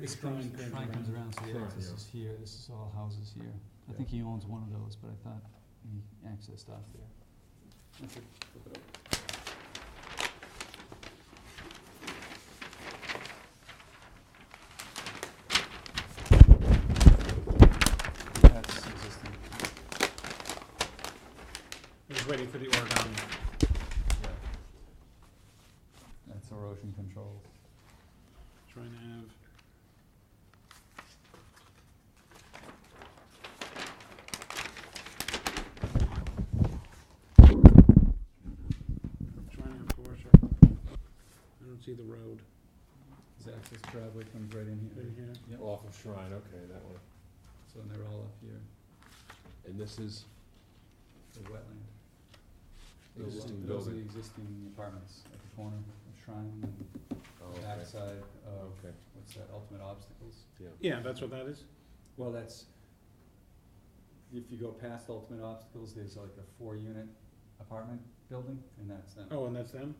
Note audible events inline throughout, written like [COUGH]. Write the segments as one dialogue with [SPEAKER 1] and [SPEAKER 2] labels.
[SPEAKER 1] This drawing comes
[SPEAKER 2] Trying comes
[SPEAKER 1] around.
[SPEAKER 2] around, so the
[SPEAKER 3] Sure,
[SPEAKER 2] access
[SPEAKER 3] yeah.
[SPEAKER 2] is here, this is all houses here. I
[SPEAKER 3] Yeah.
[SPEAKER 2] think he owns one of those, but I thought he accessed off there. That's it. Flip it up. That's existing.
[SPEAKER 1] I was waiting for the origami.
[SPEAKER 2] That's erosion control.
[SPEAKER 1] Trying to have. Trying to have Porsche. I don't see the road
[SPEAKER 2] His access driveway comes right in
[SPEAKER 1] in here.
[SPEAKER 2] Yep.
[SPEAKER 3] Off of Shrine, okay, that one.
[SPEAKER 2] so they're all up here,
[SPEAKER 3] And this is
[SPEAKER 2] the wetland.
[SPEAKER 3] the
[SPEAKER 2] Those are-
[SPEAKER 3] existing
[SPEAKER 2] Those are the
[SPEAKER 3] building.
[SPEAKER 2] existing apartments at the corner of Shrine and
[SPEAKER 3] Oh, okay.
[SPEAKER 2] backside of,
[SPEAKER 3] Okay,
[SPEAKER 2] what's that, Ultimate Obstacles?
[SPEAKER 3] yeah.
[SPEAKER 1] Yeah, that's what that is.
[SPEAKER 2] Well, that's, if you go past Ultimate Obstacles, there's like a four-unit apartment building, and that's them.
[SPEAKER 1] Oh, and that's them?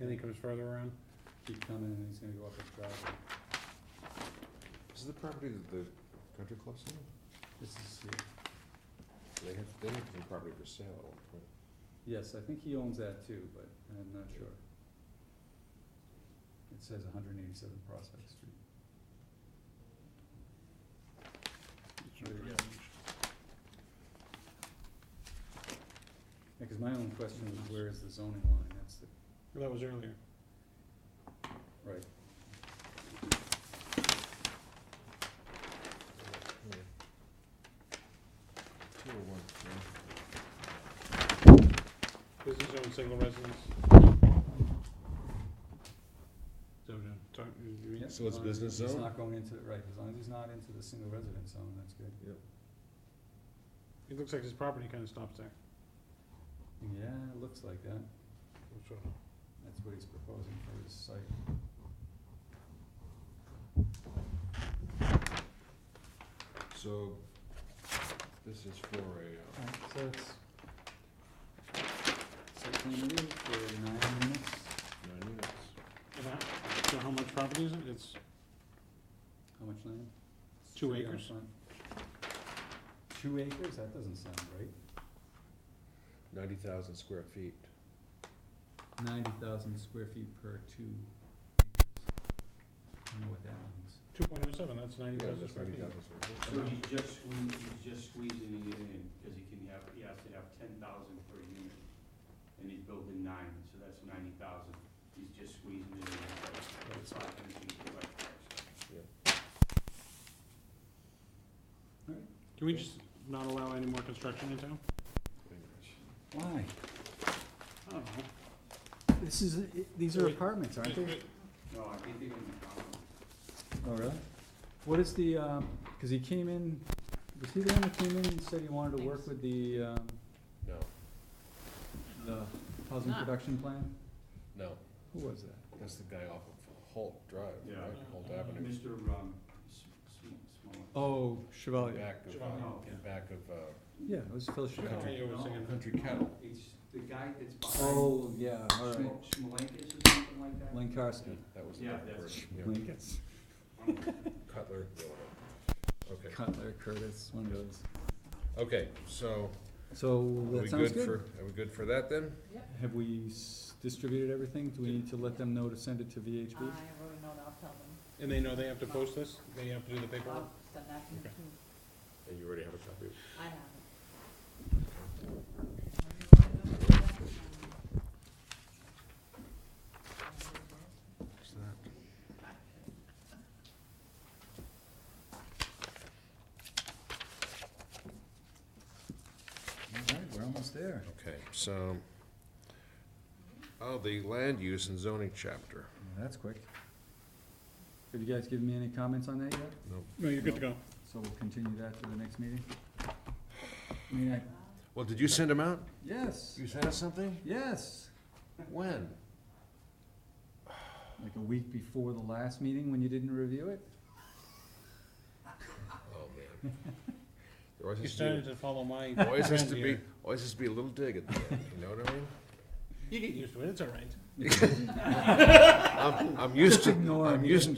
[SPEAKER 1] And he comes further around?
[SPEAKER 2] Keep coming, and he's gonna go up his driveway.
[SPEAKER 3] Is the property that the country club's on?
[SPEAKER 2] This is, here.
[SPEAKER 3] They have, they have some property for sale at one point.
[SPEAKER 2] yes, I think he owns that too, but I'm not sure. It says hundred and eighty-seven Prospect Street. There you go. Yeah, 'cause my own question was, where is the zoning line? That's the,
[SPEAKER 1] That was earlier.
[SPEAKER 2] right,
[SPEAKER 3] Two oh one,
[SPEAKER 1] This is own single residence. So, uh, talk- you- you-
[SPEAKER 2] Yep,
[SPEAKER 3] So
[SPEAKER 2] as long
[SPEAKER 3] it's
[SPEAKER 2] as
[SPEAKER 3] business
[SPEAKER 2] He's
[SPEAKER 3] zone?
[SPEAKER 2] not going into, right, as long as he's not into the single residence zone, that's good.
[SPEAKER 1] It looks like his property kinda stops there.
[SPEAKER 2] Yeah, it looks like that. That's what he's proposing for his site.
[SPEAKER 3] So, this is for a, uh,
[SPEAKER 2] Alright, so it's. Site plan review for nine minutes.
[SPEAKER 3] nine units.
[SPEAKER 1] And that- So how much property is it? It's
[SPEAKER 2] How much land?
[SPEAKER 1] Two
[SPEAKER 2] Three on the
[SPEAKER 1] acres.
[SPEAKER 2] front. Two acres? That doesn't sound right.
[SPEAKER 3] Ninety thousand square feet.
[SPEAKER 2] Ninety thousand square feet per two. I don't know what that means.
[SPEAKER 1] two point oh seven, that's ninety
[SPEAKER 3] Yeah,
[SPEAKER 1] thousand
[SPEAKER 3] that's
[SPEAKER 1] square
[SPEAKER 3] ninety
[SPEAKER 1] feet.
[SPEAKER 3] thousand square
[SPEAKER 4] So
[SPEAKER 3] feet.
[SPEAKER 4] he's just squeezing, he's just squeezing it in, cause he can have, he has to have ten thousand per unit, and he's building nine, so that's ninety thousand. He's just squeezing it in, so it's not gonna be the right price.
[SPEAKER 1] Can we just not allow any more construction in town?
[SPEAKER 2] Why?
[SPEAKER 1] I don't know.
[SPEAKER 2] This is, these
[SPEAKER 1] are
[SPEAKER 2] apartments,
[SPEAKER 4] No, I think they're gonna be common.
[SPEAKER 2] Oh, really? What is the, um, cause he came in, was he the one that came in and said he wanted to work with the, um,
[SPEAKER 3] No,
[SPEAKER 2] the housing production plan?
[SPEAKER 3] no,
[SPEAKER 2] Who was that?
[SPEAKER 3] that's the guy off of Holt Drive,
[SPEAKER 4] Yeah.
[SPEAKER 3] right, Holt Avenue.
[SPEAKER 4] Mr. Um, S- S- Smollett.
[SPEAKER 2] Oh, Chevalier.
[SPEAKER 3] Back of,
[SPEAKER 1] Chevalier,
[SPEAKER 3] uh, in back of, uh,
[SPEAKER 2] Yeah, it was Phil Chevalier.
[SPEAKER 1] Okay, you were singing that.
[SPEAKER 3] Country Kettle.
[SPEAKER 4] It's the guy that's behind
[SPEAKER 2] Oh, yeah, all right.
[SPEAKER 4] Smo- Smolenkus or something like that.
[SPEAKER 2] Lankarski.
[SPEAKER 3] That was the
[SPEAKER 4] Yeah,
[SPEAKER 3] word,
[SPEAKER 4] that's-
[SPEAKER 3] yeah.
[SPEAKER 2] Lincolns.
[SPEAKER 3] Cutler. Okay,
[SPEAKER 2] Cutler, Curtis, one of those.
[SPEAKER 3] okay, so,
[SPEAKER 2] So
[SPEAKER 3] are we
[SPEAKER 2] that sounds
[SPEAKER 3] good for,
[SPEAKER 2] good.
[SPEAKER 3] are we good for that then?
[SPEAKER 2] Have we s- distributed everything? Do we need to let them know to send it to
[SPEAKER 5] I
[SPEAKER 2] VHB?
[SPEAKER 5] really don't know, I'll tell them,
[SPEAKER 1] And they know they have to post this? They have to do the paperwork?
[SPEAKER 5] I'll send that to
[SPEAKER 1] Okay.
[SPEAKER 5] them.
[SPEAKER 3] And you already have a copy of
[SPEAKER 5] I haven't.
[SPEAKER 3] that.
[SPEAKER 2] All right, we're almost there.
[SPEAKER 3] Okay, so, oh, the land use and zoning chapter.
[SPEAKER 2] That's quick. Have you guys given me any comments on that yet?
[SPEAKER 1] No, you're good to go.
[SPEAKER 2] So we'll continue that to the next meeting? I mean, I,
[SPEAKER 3] Well, did you send them out?
[SPEAKER 2] yes,
[SPEAKER 3] You sent us something?
[SPEAKER 2] yes,
[SPEAKER 3] When?
[SPEAKER 2] like a week before the last meeting when you didn't review it?
[SPEAKER 3] Oh, man. There always
[SPEAKER 1] You
[SPEAKER 3] has to
[SPEAKER 1] started
[SPEAKER 3] be,
[SPEAKER 1] to follow my [LAUGHS]
[SPEAKER 3] always has
[SPEAKER 1] trend
[SPEAKER 3] to be,
[SPEAKER 1] here.
[SPEAKER 3] always has to be a little dig at the end, you know what I mean?
[SPEAKER 1] You get used to it, it's all right.
[SPEAKER 3] I'm, I'm used to,
[SPEAKER 2] Ignore
[SPEAKER 3] I'm
[SPEAKER 2] him, he
[SPEAKER 3] used,
[SPEAKER 2] doesn't